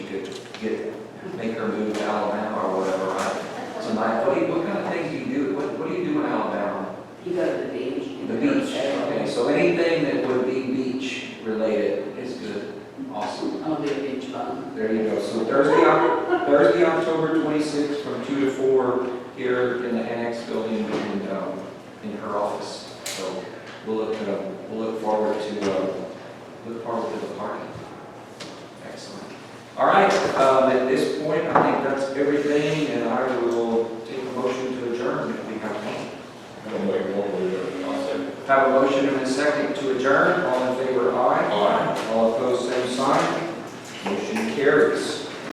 get, make her move to Alabama or whatever, right? So like, what do you, what kind of things do you do, what, what do you do in Alabama? You go to the beach. you The go to beach, Salem. okay, so anything that would be beach related is good, awesome. I'll be a beach bum. There you go, so Thursday, Oc- Thursday, October twenty-sixth, from two to four, here in the annex building and, um, in her office. So we'll look, uh, we'll look forward to, uh, look forward to the party. Excellent. All right, um, at this point, I think that's everything, and I will take a motion to adjourn if we have one. I'll make one more year. I'll say. Have a motion and a second to adjourn, all in favor, aye. Aye. All opposed, same sign. Motion carries.